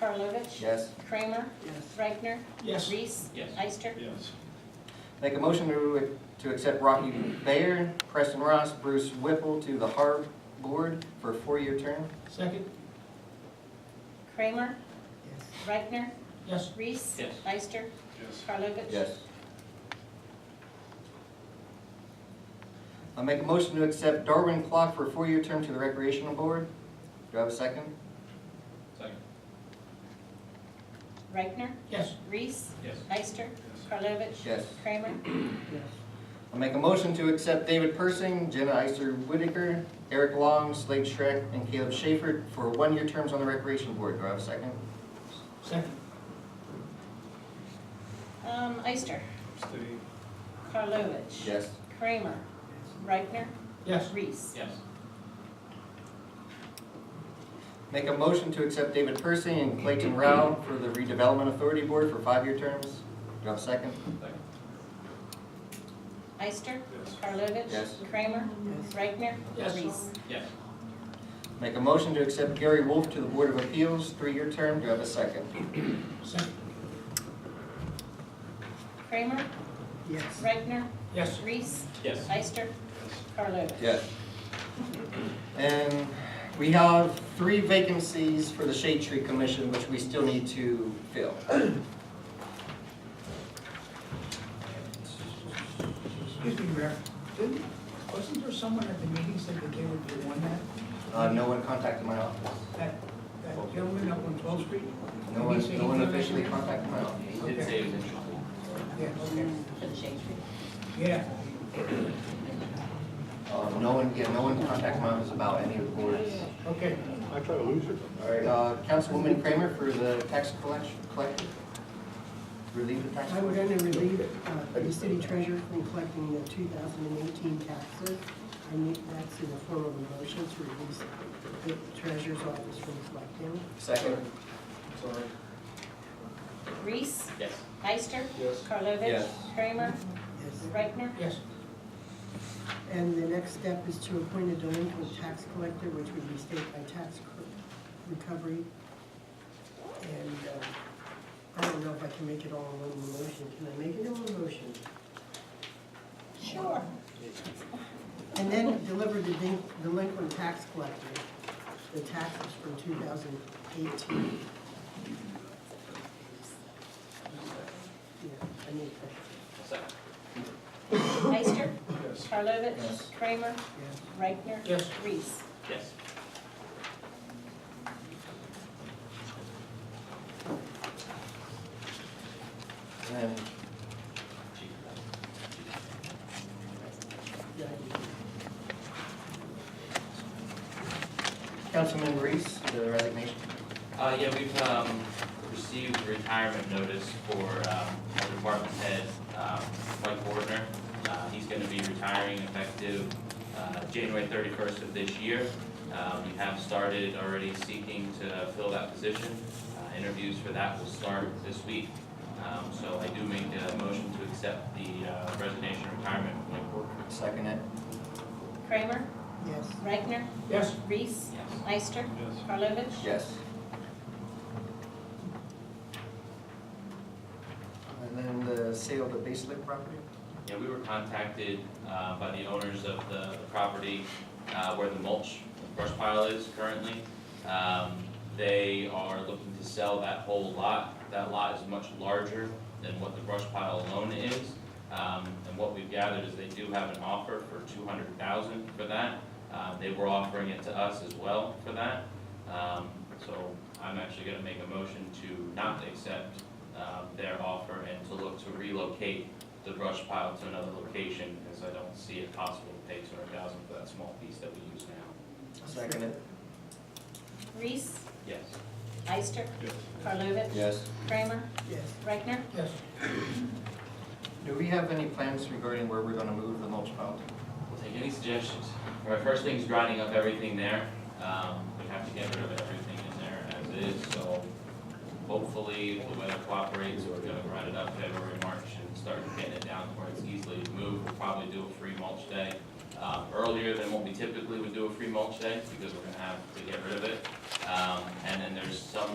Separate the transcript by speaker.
Speaker 1: Karlovic?
Speaker 2: Yes.
Speaker 1: Kramer?
Speaker 3: Yes.
Speaker 1: Reichner?
Speaker 4: Yes.
Speaker 1: Reese?
Speaker 4: Yes.
Speaker 1: Eister?
Speaker 4: Yes.
Speaker 2: Make a motion to, to accept Rocky Bayer, Preston Ross, Bruce Whipple to the Harb Board for a four-year term.
Speaker 4: Second?
Speaker 1: Kramer?
Speaker 3: Yes.
Speaker 1: Reichner?
Speaker 4: Yes.
Speaker 1: Reese?
Speaker 4: Yes.
Speaker 1: Eister?
Speaker 4: Yes.
Speaker 1: Karlovic?
Speaker 2: I make a motion to accept Darwin Clark for a four-year term to the Recreational Board. Do I have a second?
Speaker 4: Second?
Speaker 1: Reichner?
Speaker 4: Yes.
Speaker 1: Reese?
Speaker 4: Yes.
Speaker 1: Eister?
Speaker 4: Yes.
Speaker 1: Karlovic?
Speaker 2: Yes.
Speaker 1: Kramer?
Speaker 3: Yes.
Speaker 2: I make a motion to accept David Persing, Jenna Iser Whitaker, Eric Long, Slade Schreck, and Caleb Schaefer for one-year terms on the Recreation Board. Do I have a second?
Speaker 4: Second?
Speaker 1: Um, Eister?
Speaker 4: Abstain.
Speaker 1: Karlovic?
Speaker 2: Yes.
Speaker 1: Kramer? Reichner?
Speaker 4: Yes.
Speaker 1: Reese?
Speaker 4: Yes.
Speaker 2: Make a motion to accept David Persing and Clayton Rao for the Redevelopment Authority Board for five-year terms. Do I have a second?
Speaker 4: Second?
Speaker 1: Eister?
Speaker 4: Yes.
Speaker 1: Karlovic?
Speaker 2: Yes.
Speaker 1: Kramer? Reichner?
Speaker 4: Yes.
Speaker 1: Reese?
Speaker 4: Yes.
Speaker 2: Make a motion to accept Gary Wolf to the Board of Appeals, three-year term. Do I have a second?
Speaker 4: Second?
Speaker 1: Kramer?
Speaker 3: Yes.
Speaker 1: Reichner?
Speaker 4: Yes.
Speaker 1: Reese?
Speaker 4: Yes.
Speaker 1: Eister? Karlovic?
Speaker 2: Yes. And we have three vacancies for the Shade Tree Commission, which we still need to fill.
Speaker 3: Excuse me, Mayor, didn't, wasn't there someone at the meeting said that they would be one that,
Speaker 2: Uh, no one contacted my office.
Speaker 3: that, that gentleman up on 12th Street?
Speaker 2: No
Speaker 3: Did he
Speaker 2: one,
Speaker 3: say
Speaker 2: no
Speaker 3: he came
Speaker 2: one
Speaker 3: in
Speaker 2: officially
Speaker 3: here?
Speaker 2: contacted my office.
Speaker 5: He did say he was interested.
Speaker 3: Yeah, okay,
Speaker 1: For the shade tree.
Speaker 3: yeah.
Speaker 2: Uh, no one, yeah, no one contacted my office about any of the boards.
Speaker 3: Okay,
Speaker 6: I try to lose her.
Speaker 2: All right, uh, Councilwoman Kramer for the tax collection, collector. Relieve the tax
Speaker 7: I would
Speaker 2: collector.
Speaker 7: only relieve uh, the city treasurer from collecting the 2018 taxes. I need that's in the form of a motion to release the treasurer's office from collecting.
Speaker 2: Second.
Speaker 4: Sorry.
Speaker 1: Reese?
Speaker 5: Yes.
Speaker 1: Eister?
Speaker 4: Yes.
Speaker 1: Karlovic?
Speaker 2: Yes.
Speaker 1: Kramer?
Speaker 7: Yes.
Speaker 1: Reichner?
Speaker 4: Yes.
Speaker 7: And the next step is to appoint a delinquent tax collector, which would be state by tax co- recovery. And uh, I don't know if I can make it all in one motion. Can I make it in one motion?
Speaker 1: Sure.
Speaker 7: And then deliver the delin- delinquent tax collector, the taxes from 2018. Yeah, I need that.
Speaker 5: Second.
Speaker 1: Eister?
Speaker 4: Yes.
Speaker 1: Karlovic?
Speaker 2: Yes.
Speaker 1: Kramer?
Speaker 7: Yes.
Speaker 1: Reichner?
Speaker 4: Yes.
Speaker 1: Reese?
Speaker 5: Yes.
Speaker 2: And
Speaker 7: Yeah, I need
Speaker 2: Councilman Reese, the resignation.
Speaker 5: Uh, yeah, we've, um, received retirement notice for, um, our department head, um, Mike Wardner. Uh, he's gonna be retiring effective, uh, January thirty-first of this year. Um, we have started already seeking to fill that position. Uh, interviews for that will start this week. Um, so I do make a motion to accept the, uh, resignation retirement of Mike Wardner.
Speaker 2: Second it.
Speaker 1: Kramer?
Speaker 7: that. Yes.
Speaker 1: Reichner?
Speaker 4: Yes.
Speaker 1: Reese?
Speaker 5: Yes.
Speaker 1: Eister?
Speaker 4: Yes.
Speaker 1: Karlovic?
Speaker 2: Yes. And then the sale of the base lake property?
Speaker 5: Yeah, we were contacted uh, by the owners of the the property uh, where the mulch brush pile is currently. Um, They are looking to sell that whole lot. That lot is much larger than what the brush pile alone is. Um, And what we've gathered is they do have an offer for two hundred thousand for that. Uh, They were offering it to us as well for that. Um, So I'm actually gonna make a motion to not accept uh, their offer and to look to relocate the brush pile to another location, because I don't see it possible to pay two hundred thousand for that small piece that we use now.
Speaker 2: Second it.
Speaker 1: Reese?
Speaker 5: Yes.
Speaker 1: Eister?
Speaker 4: Yes.
Speaker 1: Karlovic?
Speaker 2: Yes.
Speaker 1: Kramer?
Speaker 7: Yes.
Speaker 1: Reichner?
Speaker 4: Yes.
Speaker 2: Do we have any plans regarding where we're gonna move the mulch pile to?
Speaker 5: We'll take any suggestions. All right, first thing's grinding up everything there. Um, we have to get rid of everything in there as is, so hopefully if the weather cooperates, we're gonna grind it up February, March, and start getting it down where it's easily moved. We'll probably do a free mulch day, um, earlier than what we typically would do a free mulch day, because we're gonna have to get rid of it. Um, and then there's some